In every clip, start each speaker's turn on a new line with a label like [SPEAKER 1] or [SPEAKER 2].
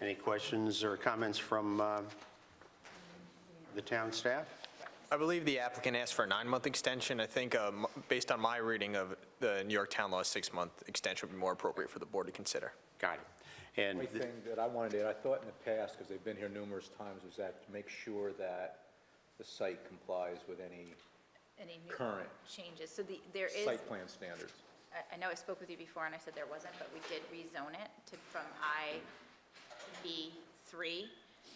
[SPEAKER 1] Any questions or comments from uh, the town staff?
[SPEAKER 2] I believe the applicant asked for a nine-month extension. I think, um, based on my reading of the New York Town Law, a six-month extension would be more appropriate for the board to consider.
[SPEAKER 1] Got it. And
[SPEAKER 3] Only thing that I wanted to, add, I thought in the past, because they've been here numerous times, was that to make sure that the site complies with any
[SPEAKER 4] Any new
[SPEAKER 3] current
[SPEAKER 4] changes? So the, there is,
[SPEAKER 3] site plan standards.
[SPEAKER 4] I, I know I spoke with you before and I said there wasn't, but we did rezone it to, from I to B3.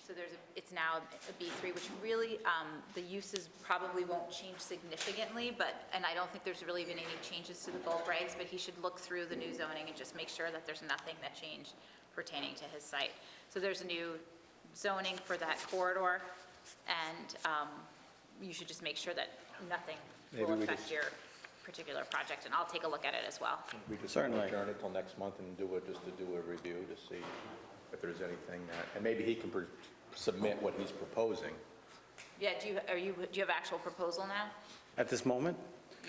[SPEAKER 4] So there's, a it's now a B3, which really, um, the uses probably won't change significantly, but, and I don't think there's really been any changes to the bulk regs, but he should look through the new zoning and just make sure that there's nothing that changed pertaining to his site. So there's a new zoning for that corridor, and um, you should just make sure that nothing
[SPEAKER 3] Maybe
[SPEAKER 4] will
[SPEAKER 3] we
[SPEAKER 4] affect
[SPEAKER 3] just- Mm.
[SPEAKER 4] your particular project, and I'll take a look at it as well.
[SPEAKER 3] We just
[SPEAKER 1] Certainly.
[SPEAKER 3] adjourn it till next month and do it, just to do a review to see if there's anything that, and maybe he can pr- submit what he's proposing.
[SPEAKER 4] Yeah, do you, are you, do you have actual proposal now?
[SPEAKER 5] At this moment?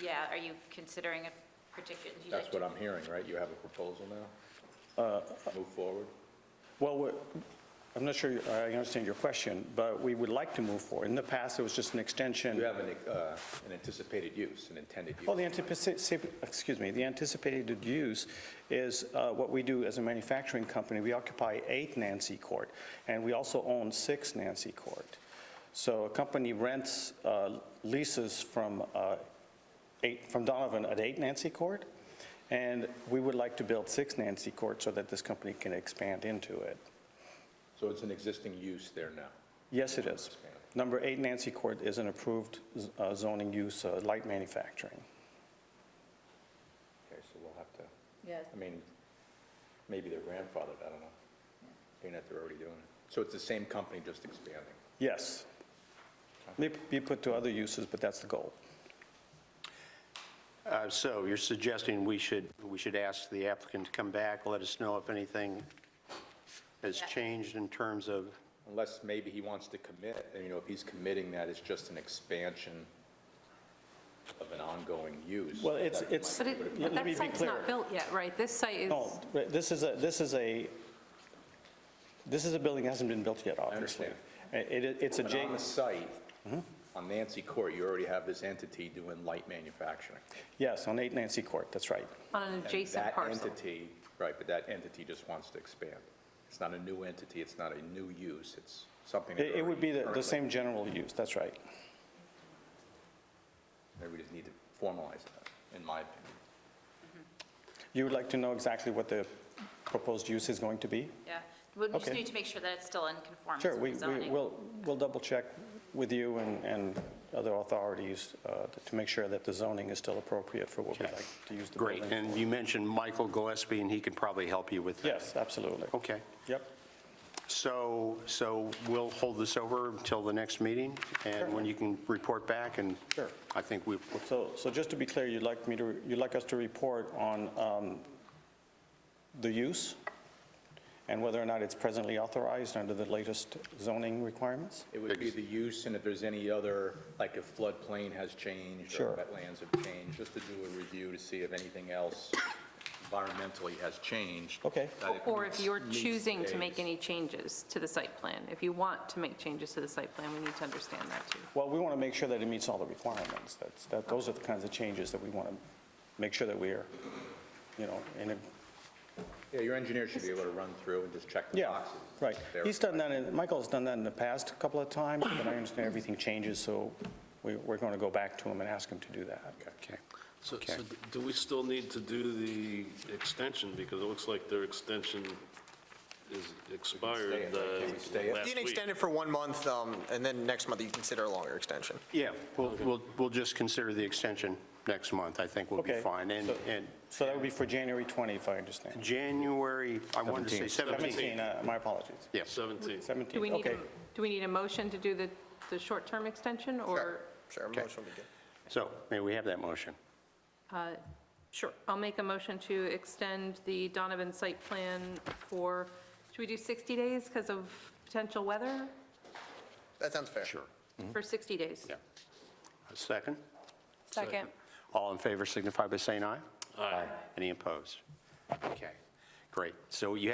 [SPEAKER 4] Yeah, are you considering a particular? do you
[SPEAKER 3] That's
[SPEAKER 4] like-
[SPEAKER 3] what I'm hearing, right? You have a proposal now? Move forward?
[SPEAKER 5] Well, we're- I'm not sure I understand your question, but we would like to move forward. In the past, it was just an
[SPEAKER 3] You
[SPEAKER 5] extension.
[SPEAKER 3] have an, uh, an anticipated use, an intended use.
[SPEAKER 5] Well, the anticipated, excuse me, the anticipated use is uh, what we do as a manufacturing company. We occupy eight Nancy Court, and we also own six Nancy Court. So a company rents uh, leases from uh, eight, from Donovan at eight Nancy Court, and we would like to build six Nancy Court so that this company can expand into it.
[SPEAKER 3] So it's an existing use there now.
[SPEAKER 5] Yes, it is. Number eight Nancy Court is an approved z- uh, zoning use, uh, light manufacturing.
[SPEAKER 3] Okay, so we'll have to
[SPEAKER 4] Yes.
[SPEAKER 3] I mean, maybe they're grandfathered, I don't know. Being that they're already doing it. So it's the same company, just expanding.
[SPEAKER 5] Yes. May be put to other uses, but that's the goal.
[SPEAKER 1] uh, so you're suggesting we should, we should ask the applicant to come back, let us know if anything has
[SPEAKER 4] Yeah.
[SPEAKER 1] changed in terms of,
[SPEAKER 3] Unless maybe he wants to commit, and you know, if he's committing that, it's just an expansion of an ongoing use.
[SPEAKER 5] Well, it's,
[SPEAKER 3] That
[SPEAKER 5] it's,
[SPEAKER 6] But
[SPEAKER 5] let
[SPEAKER 6] it,
[SPEAKER 5] let
[SPEAKER 6] but
[SPEAKER 5] me
[SPEAKER 6] that
[SPEAKER 5] be
[SPEAKER 6] site's
[SPEAKER 5] clear.
[SPEAKER 6] not built yet, right? This site is,
[SPEAKER 5] No, this is a, this is a, this is a building that hasn't been built yet, obviously.
[SPEAKER 3] understand.
[SPEAKER 5] It- it- it's a
[SPEAKER 3] But on the
[SPEAKER 5] J,
[SPEAKER 3] site,
[SPEAKER 5] Mm-hmm.
[SPEAKER 3] on Nancy Court, you already have this entity doing light manufacturing.
[SPEAKER 5] yes, on eight Nancy Court, that's right.
[SPEAKER 6] on an
[SPEAKER 3] And
[SPEAKER 6] adjacent
[SPEAKER 3] That
[SPEAKER 6] parcel.
[SPEAKER 3] entity, right, but that entity just wants to expand. It's not a new entity, it's not a new use, it's something. that
[SPEAKER 5] It it would be the-
[SPEAKER 3] already
[SPEAKER 5] the same general use, that's right.
[SPEAKER 3] currently- Maybe we just need to formalize that, in my opinion.
[SPEAKER 5] You would like to know exactly what the proposed use is going to be?
[SPEAKER 4] Yeah, we just
[SPEAKER 5] Okay.
[SPEAKER 4] need to make sure that it's still in conformance
[SPEAKER 5] Sure, we,
[SPEAKER 4] with the
[SPEAKER 5] we,
[SPEAKER 4] zoning.
[SPEAKER 5] we'll, we'll double check with you and, and other authorities uh, to make sure that the zoning is still appropriate for what we'd
[SPEAKER 1] Okay.
[SPEAKER 5] like to use the
[SPEAKER 1] great,
[SPEAKER 5] building.
[SPEAKER 1] and you mentioned Michael Gillespie, and he can probably help you with that.
[SPEAKER 5] Yes, absolutely.
[SPEAKER 1] Okay,
[SPEAKER 5] Yep,
[SPEAKER 1] so, so we'll hold this over until the next meeting, and when you can report back, and
[SPEAKER 5] Sure.
[SPEAKER 1] I think we,
[SPEAKER 5] so, so just to be clear, you'd like me to, you'd like us to report on um, the use and whether or not it's presently authorized under the latest zoning requirements?
[SPEAKER 3] It would be the use and if there's any other, like if floodplain has changed or
[SPEAKER 5] Sure.
[SPEAKER 3] wetlands have changed, just to do a review to see if anything else environmentally has changed.
[SPEAKER 5] Okay.
[SPEAKER 3] that it
[SPEAKER 6] Or if
[SPEAKER 3] meets-
[SPEAKER 6] you're
[SPEAKER 3] meets
[SPEAKER 6] choosing to make
[SPEAKER 3] today's-
[SPEAKER 6] any changes to the site plan, if you want to make changes to the site plan, we need to understand that too.
[SPEAKER 5] Well, we want to make sure that it meets all the requirements. That's, that, those are the kinds of changes that we want to make sure that we are, you know, in a
[SPEAKER 3] Yeah, your engineer should be able to run through and just check the
[SPEAKER 5] Yeah,
[SPEAKER 3] boxes.
[SPEAKER 5] right.
[SPEAKER 3] There.
[SPEAKER 5] He's done that, in Michael's done that in the past a couple of times, but I understand everything changes, so we- we're going to go back to him and ask him to do that.
[SPEAKER 1] okay.
[SPEAKER 7] So,
[SPEAKER 1] Okay.
[SPEAKER 7] so do we still need to do the extension? Because it looks like their extension is
[SPEAKER 3] stay
[SPEAKER 7] expired
[SPEAKER 3] it, right? Can we stay it?
[SPEAKER 7] uh, last
[SPEAKER 2] You
[SPEAKER 7] week.
[SPEAKER 2] can extend it for one month, um, and then next month you consider a longer extension.
[SPEAKER 1] Yeah, we'll, we'll, we'll just consider the extension next month, I think we'll be
[SPEAKER 5] Okay,
[SPEAKER 1] fine. And,
[SPEAKER 5] so-
[SPEAKER 1] and
[SPEAKER 5] So that would be for January 20, if I understand.
[SPEAKER 1] January, I wanted to say 17.
[SPEAKER 5] 17, uh, my apologies.
[SPEAKER 1] Yes,
[SPEAKER 7] 17.
[SPEAKER 5] 17,
[SPEAKER 6] Do we need,
[SPEAKER 5] okay.
[SPEAKER 6] a- do we need a motion to do the, the short-term extension or?
[SPEAKER 2] Sure, motion will be good.
[SPEAKER 1] so may we have that motion?
[SPEAKER 6] uh, Sure. I'll make a motion to extend the Donovan site plan for, should we do 60 days because of potential weather?
[SPEAKER 2] That sounds fair.
[SPEAKER 1] Sure.
[SPEAKER 6] For 60 days?
[SPEAKER 1] Yeah. A second?
[SPEAKER 6] Second.
[SPEAKER 1] All in favor signify by saying aye.
[SPEAKER 7] Aye.
[SPEAKER 1] Any opposed? Okay, great. So you